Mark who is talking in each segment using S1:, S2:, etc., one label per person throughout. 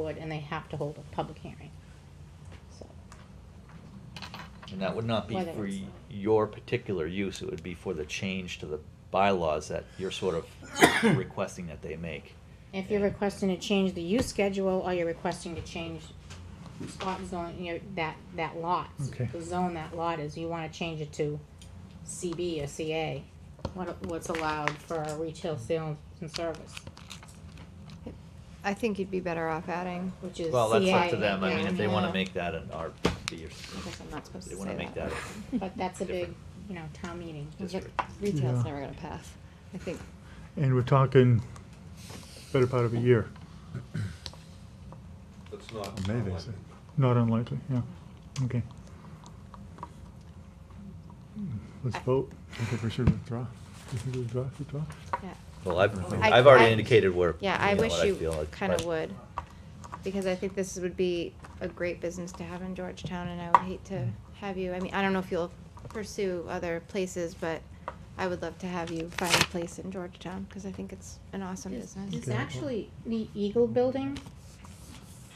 S1: board and they have to hold a public hearing. So,
S2: And that would not be
S1: Whether
S2: for
S1: it's-
S2: y- your particular use, it would be for the change to the bylaws that you're sort of requesting that they make.
S1: If you're
S2: Yeah.
S1: requesting to change the use schedule or you're requesting to change spot zone, you know, that, that lot.
S3: Okay.
S1: The zone that lot is, you wanna change it to CB or CA, what, what's allowed for a retail sale and service,
S4: I think you'd be better off adding.
S1: which is CA.
S2: Well, that's up to them, I
S1: yeah,
S2: mean, if they wanna
S4: yeah.
S2: make that an RB
S4: I guess I'm
S2: or,
S4: not supposed
S2: they
S4: to
S2: wanna
S4: say
S2: make that.
S4: that.
S2: a-
S1: But that's a big,
S2: different-
S1: you know, town meeting.
S4: Yep,
S2: district.
S4: Retail's
S3: Yeah.
S4: never gonna pass, I think.
S3: And we're talking better part of a year,
S5: That's not.
S6: Maybe,
S5: unlikely.
S3: not unlikely, yeah, okay. Let's vote.
S6: I think we should withdraw.
S3: You think we withdraw, withdraw?
S4: Yeah.
S2: Well, I've,
S4: I-
S2: I've already
S4: I-
S2: indicated where, you
S4: Yeah, I
S2: know,
S4: wish
S2: what I feel
S4: you
S2: like,
S4: kinda
S2: but-
S4: would, because I think this would be a great business to have in Georgetown, and I would hate to
S1: Mm.
S4: have you, I mean, I don't know if you'll pursue other places, but I would love to have you find a place in Georgetown, because I think it's an awesome
S1: There's-
S4: business.
S1: There's actually the Eagle Building,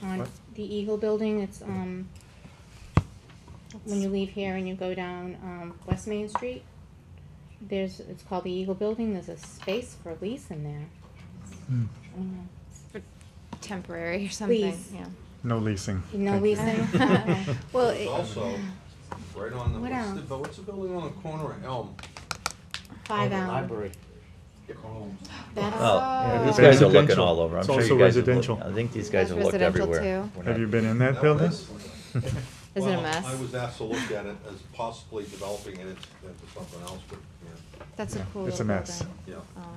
S1: on
S6: What?
S1: the Eagle Building, it's, um, when you leave here and you go down, um, West Main Street, there's, it's called the Eagle Building, there's a space for lease in there.
S3: Hmm.
S1: I don't know.
S4: Temporary or something,
S1: Please.
S4: yeah.
S6: No leasing.
S1: No
S6: Thank you.
S1: leasing?
S4: Well,
S5: There's
S4: it-
S5: Also, right on the,
S1: What
S5: what's
S1: else?
S5: the, bu- what's the building on the corner of Elm?
S1: Five hours. That's,
S2: Oh,
S4: Yeah,
S2: these
S4: it's
S2: guys are looking
S3: residential.
S2: all over, I'm
S3: It's
S2: sure you
S3: also
S2: guys have looked,
S3: residential.
S2: I think these guys
S4: That's
S2: have looked
S4: residential
S2: everywhere.
S4: too.
S2: We're
S3: Have
S2: not-
S3: you been in that
S5: That
S3: building?
S5: was-
S4: Is it a
S5: Well,
S4: mess?
S5: I was asked to look at it as possibly developing it into something else, but, yeah,
S4: That's a
S6: Yeah,
S4: cool
S6: it's a
S4: little
S6: mess.
S4: building.
S5: yeah.
S4: Um,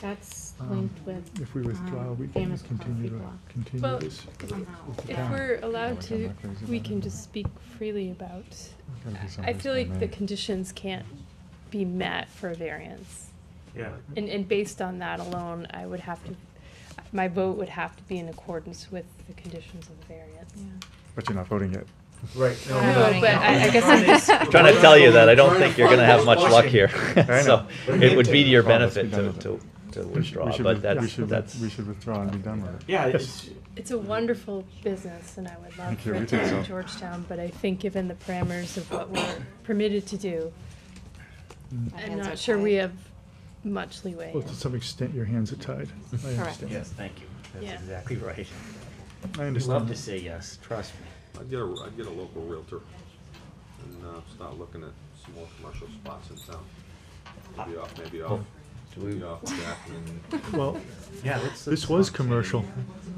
S1: that's
S3: Um,
S1: linked with.
S3: If we withdraw,
S1: um,
S3: we can
S1: famous coffee
S3: continue to,
S1: block
S3: continue
S7: Well,
S3: this.
S1: somehow.
S7: If
S3: Yeah.
S7: we're
S1: Uh,
S7: allowed
S6: Yeah, we're
S7: to,
S6: not crazy
S7: we
S6: about
S7: can
S6: it.
S7: just speak freely about,
S6: Gotta do
S7: I
S6: something
S7: feel
S6: that's
S7: like the
S6: man-made.
S7: conditions can't be met for a variance.
S3: Yeah.
S7: And, and based on that alone, I would have to, my vote would have to be in accordance with the conditions of the variance.
S4: yeah.
S6: But you're not voting yet.
S8: Right.
S4: No,
S7: No, but I, I guess I'm just,
S2: I'm Trying to tell you that, I don't think you're gonna have much luck here,
S6: I
S2: so
S6: know.
S2: it would be to your
S6: Well, let's be
S2: benefit
S6: done
S2: to,
S6: with it.
S2: to, to
S6: We should- we
S2: withdraw,
S6: should with-
S2: but
S6: we
S2: that's,
S6: should with-
S2: that's.
S6: We should withdraw and be done with it.
S8: Yeah,
S3: Yes.
S8: it's,
S7: it's a wonderful business and I would love
S6: Thank
S7: for
S6: you, we
S7: it to
S6: think
S7: be in
S6: so.
S7: Georgetown, but I think given the parameters of what we're permitted to do,
S4: My
S7: I'm
S4: hands are
S7: not sure we
S4: tied.
S7: have much leeway.
S3: Well, to
S7: in.
S3: some extent, your hands are tied. I
S4: Correct.
S3: understand.
S8: yes, thank you.
S7: Yeah.
S8: That's exactly right.
S3: I
S8: I'd
S3: understand.
S8: love to say
S2: uh,
S8: yes, trust me.
S5: I'd get a, I'd get a local realtor and, uh, start looking at some more commercial spots in town. Maybe off, maybe off,
S2: Do we-
S5: maybe off Jackman.
S3: Well,
S8: Yeah, let's.
S3: this
S8: let's
S3: was
S8: not say-
S3: commercial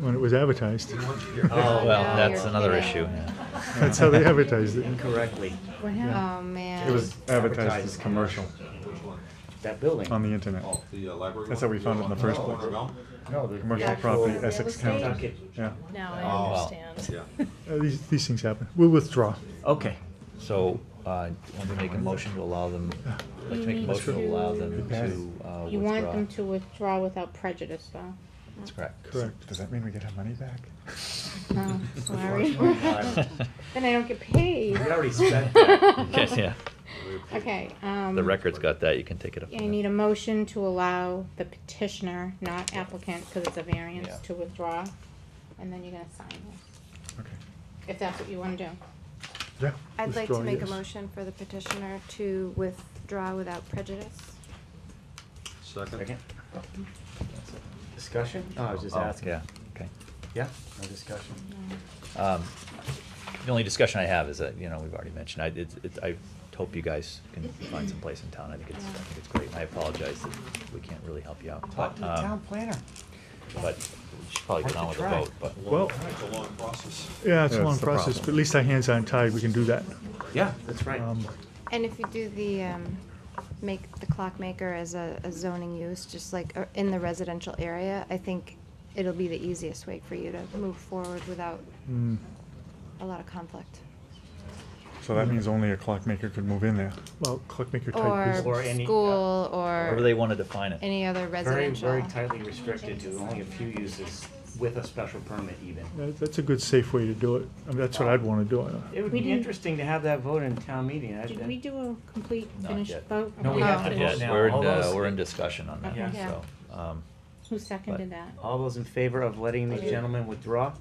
S3: when it was advertised.
S2: Oh, well,
S4: no,
S2: that's
S4: you're
S2: another
S4: kidding.
S2: issue, yeah.
S3: That's how they advertised it.
S8: Incorrectly.
S1: What happened?
S4: Oh, man.
S6: It was advertised as commercial
S5: Which one?
S8: That building.
S6: on the internet.
S5: Oh, the uh, library
S6: That's
S5: one?
S6: how we found it in the first
S5: Oh,
S6: place.
S5: Cornell?
S8: No, the.
S6: Commercial
S8: actual-
S6: property,
S1: real
S6: Essex
S1: estate?
S6: County.
S8: Tuck it.
S6: Yeah.
S7: Now
S2: Oh,
S7: I
S2: well,
S7: understand.
S5: Yeah.
S3: Uh, These, these things happen. We'll withdraw.
S8: Okay.
S2: So, uh, want to make a motion to allow them, let's make a
S7: need
S2: motion to
S7: to-
S2: allow them
S6: Yes.
S2: to, uh,
S1: You want them
S2: withdraw.
S1: to withdraw without prejudice, though?
S2: That's correct.
S3: Correct.
S6: Does that mean we get our money back?
S3: Oh,
S1: No,
S2: Um,
S1: sorry.
S8: Unfortunately,
S1: Then I don't get paid.
S8: We already spent that.
S2: Okay, Yeah,
S1: Okay, um.
S2: the record's got that, you can take it up.
S1: I need a motion to allow the petitioner, not applicant, because it's a variance,
S2: Yeah.
S1: to withdraw, and then you're gonna sign this,
S6: Okay.
S1: if that's what you wanna do.
S3: Yeah.
S4: I'd like
S3: withdraw,
S4: to make a
S3: yes.
S4: motion for the petitioner to withdraw without prejudice.
S5: Second?
S8: Second. Discussion? No, I was just
S2: Oh,
S8: asking.
S2: Yeah, okay.
S8: Yeah, no discussion.
S2: Um, The only discussion I have is that, you know, we've already mentioned, I, it's, it's, I hope you guys can find some place in town, I think it's, I think it's great, and I apologize that we can't really help you out.
S8: Talk to the
S2: um,
S8: town planner.
S2: But we should probably get on with the vote, but.
S3: Well,
S5: It's a long process.
S3: yeah, it's a
S6: That's
S3: long
S6: the
S3: process,
S6: problem.
S3: but at least our hands aren't tied. We can do that.
S8: Yeah, that's right.
S3: Um,
S4: And if you do the, um, make the clockmaker as a a zoning use, just like uh, in the residential area, I think it'll be the easiest way for you to move forward without
S3: mm,
S4: a lot of conflict.
S6: So that means only a clockmaker could move in there.
S3: Well, clockmaker type business.
S8: Or
S4: Or
S8: any, uh,
S4: school,
S2: However they
S4: or
S2: want to define it.
S4: any other
S8: Very,
S4: residential.
S8: very tightly restricted to only a few uses with a special permit even.
S3: Yeah, That's a good, safe way to do it. I mean, that's what I'd want to do.
S8: It would
S1: We
S8: be
S1: didn't-
S8: interesting to have that vote in town meeting. I'd-
S1: Did we do a complete
S2: Not
S1: finished
S2: yet.
S1: vote? Oh,
S8: No, we
S1: Okay.
S8: have to
S2: Yes,
S8: vote now.
S2: we're in,
S8: All
S2: uh,
S8: those-
S2: we're in discussion on
S1: Okay.
S2: that,
S4: Yeah.
S2: so, um,
S1: Who seconded that?
S8: All those in favor of letting the gentleman withdraw?